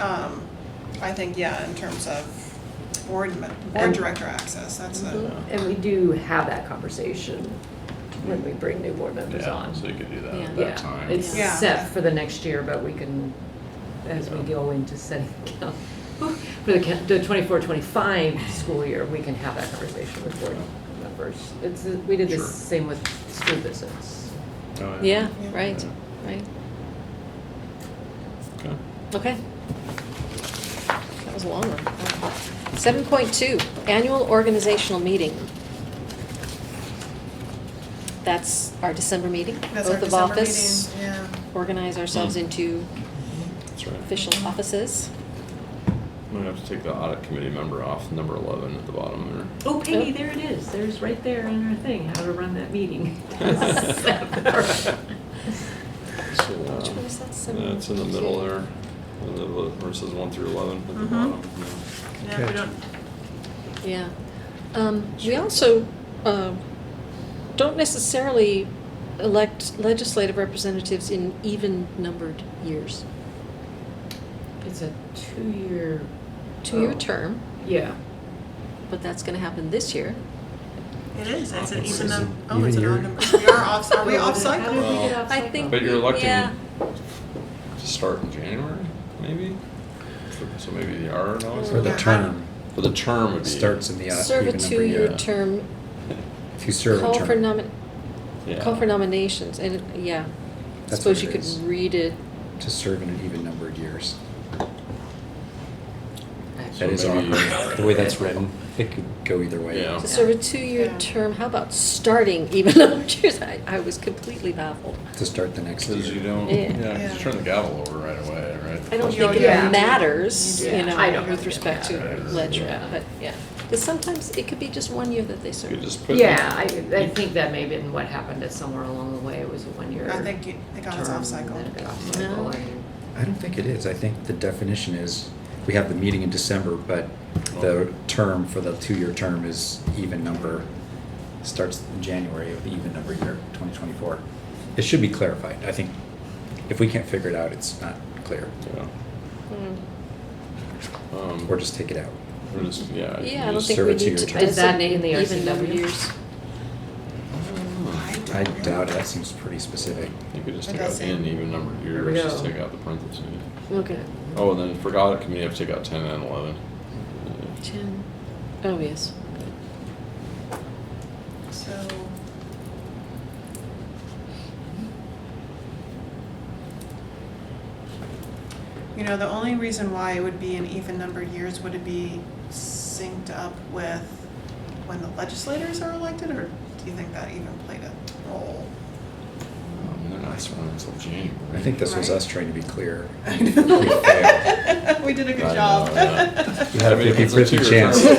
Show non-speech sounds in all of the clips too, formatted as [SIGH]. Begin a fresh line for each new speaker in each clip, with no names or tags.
Um, I think, yeah, in terms of board, me- board
And-
director access, that's a,
Mm-hmm.
And we do have that conversation when we bring new board members
Yeah,
on.
so you could do that at
Yeah.
that
Yeah,
time.
it's
Yeah.
set for the next year, but we can, as we
Yeah.
go into setting, [LAUGHS] cal- for the ca- the 24, 25 school year, we can have that conversation with board members. It's, we did the
Sure.
same with school visits.
Oh,
Yeah,
Yeah.
right, right.
Okay.
Okay. That was a long one. Seven point two, annual organizational meeting. That's our December meeting,
that's our
oath of
December
office,
meeting, yeah.
organize ourselves into
That's right.
official offices.
I'm gonna have to take the audit committee member off, number eleven at the bottom there.
Oh,
Peggy,
there it is. There's right there in our thing, how to run that [LAUGHS] meeting. [LAUGHS]
So,
Which
um,
one is that? Seven-
Yeah, it's in the middle there, in the li- verses one through eleven at the
Mhm.
Mm-hmm.
bottom.
Yeah, we don't,
Yeah. Um, we also, uh, don't necessarily elect legislative representatives in even-numbered years.
It's a two-year.
Two-year
Oh.
term,
Yeah.
but that's gonna happen this year.
it is, it's an
It's
even,
an
num- oh, it's an
even
odd
year.
number, we are off, are [LAUGHS] we
How
off
did- how
cycle?
did we get
Oh.
Well,
off
I
cycle?
think-
But you're
Yeah.
electing to start in January, maybe? For- So maybe the R and all
For the
Yeah.
term,
For the term would be.
starts in the. odd
Serve a
even number
two-year
yeah.
term,
If you serve a
call for
term,
nomin,
Yeah.
call for nominations, and, it- yeah. I
That's what
Suppose
it
you could
is.
read it,
to serve in an even number of years.
So
That is
maybe-
awkward, the way that's written, it could go either way.
Yeah.
to serve a
Yeah.
two-year term, how about starting even [LAUGHS] numbered years? I, I was completely baffled.
To start the next
Cause you
year.
don't,
Yeah.
yeah, 'cause
Yeah.
you turn the gavel over right away, right?
I don't
Yeah,
think it
yeah.
matters,
Yeah.
you know,
I don't think
with
it
respect to
matters.
ledger,
Yeah.
but yeah. Because sometimes it could be just one year that they
You could
serve.
just put. the-
Yeah, I, I think that may have been what happened, that somewhere along the way it was a one-year.
I think you- they got us
term,
off cycle.
then it got off
No.
cycle, and-
I don't think it is. I think the definition is, we have the meeting in December, but
Oh.
the term for the two-year term is even number, starts in January of the even number year, 2024. It should be clarified. I think if we can't figure it out, it's not clear.
Yeah.
Mm.
Um,
Or just take it out.
Or just, yeah. you
Yeah, I don't
just-
think
serve
we
a two-year
need to
term.
Is that
designate
in the
even number
RCW?
years. Mm-hmm.
Mm.
I doubt it. That seems pretty specific.
You could just
It
take out
doesn't.
in even numbered
There we
years, just
go.
take out the parentheses.
Okay.
Oh, and then for audit committee, I have to take out ten and eleven.
Ten. Oh, yes.
So, you know, the only reason why it would be an even numbered years, would it be synced up with when the legislators are elected, or do you think that even played a role?
Um, They're not starting until January.
I think this was
Right.
us trying to be clear.
[LAUGHS] I
We
know. [LAUGHS]
failed.
We did a
I
good
know,
job. [LAUGHS]
yeah.
You had
I
a
mean, if it's
50/50
two-year
chance. [LAUGHS]
term-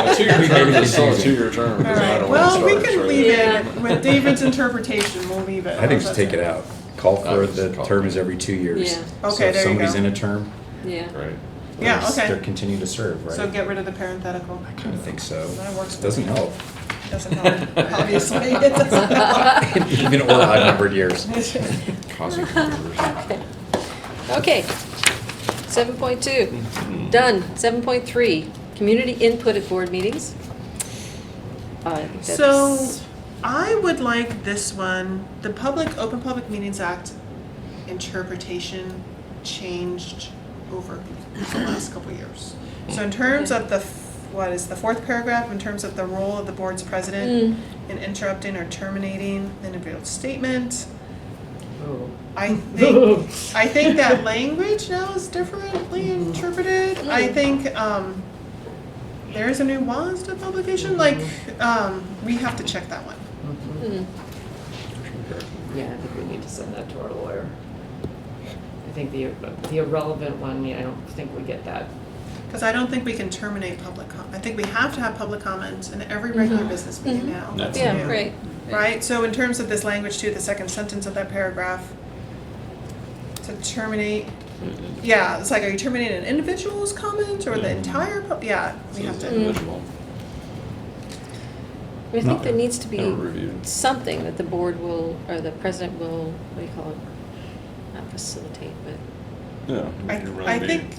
a Two-year
We made
term,
it
it's still a
confusing.
two-year term.
All
it doesn't
right,
matter when it
well, we
starts,
can
right?
leave it,
Yeah.
with David's interpretation, we'll leave it.
I think just take it out. Call
I
for
would
the
Uh, just call.
term is every two years.
Yeah.
So
Okay, there
if
you
somebody's
go.
in a term,
Yeah.
Right.
Yeah,
they're s-
okay.
They're continuing to serve, right?
So get rid of the parenthetical.
I kind of think so.
That works for
Doesn't
me.
help.
Doesn't help, obviously, [LAUGHS] it doesn't help. [LAUGHS]
[LAUGHS] Even or odd numbered years.
Causing controversy.
Okay. Seven point two, done. Seven point three, community input at board meetings. Uh, I think
So,
that's-
I would like this one, the Public, Open Public Meetings Act interpretation changed over the last couple years. So in terms of the, f- what is the fourth paragraph, in terms of the role of the board's
Mm,
president in interrupting or terminating an individual statement,
Oh.
I think, I think
[LAUGHS]
that language now is differently interpreted. I think, um, there is a nuance to publication, like, um, we have to check that one.
Mhm.
Mm.
Yeah, I think we need to send that to our lawyer. I think the, the irrelevant one, yeah, I don't think we get that.
Because I don't think we can terminate public com, I think we have to have public comment in every regular business meeting
Mhm.
now.
That's
Yeah,
new.
right.
Right, so in terms of this language too, the second sentence of that paragraph, to terminate, yeah, it's like, are you terminating an individual's comment or the
Yeah.
entire, pub- yeah, we have
It's
to.
individual.
I mean, I think
No.
there needs to be
Never reviewed.
something that the board will, or the president will, what do you call it? Not facilitate, but
Yeah.
I-
Mm.
you run
I
the
think
meeting.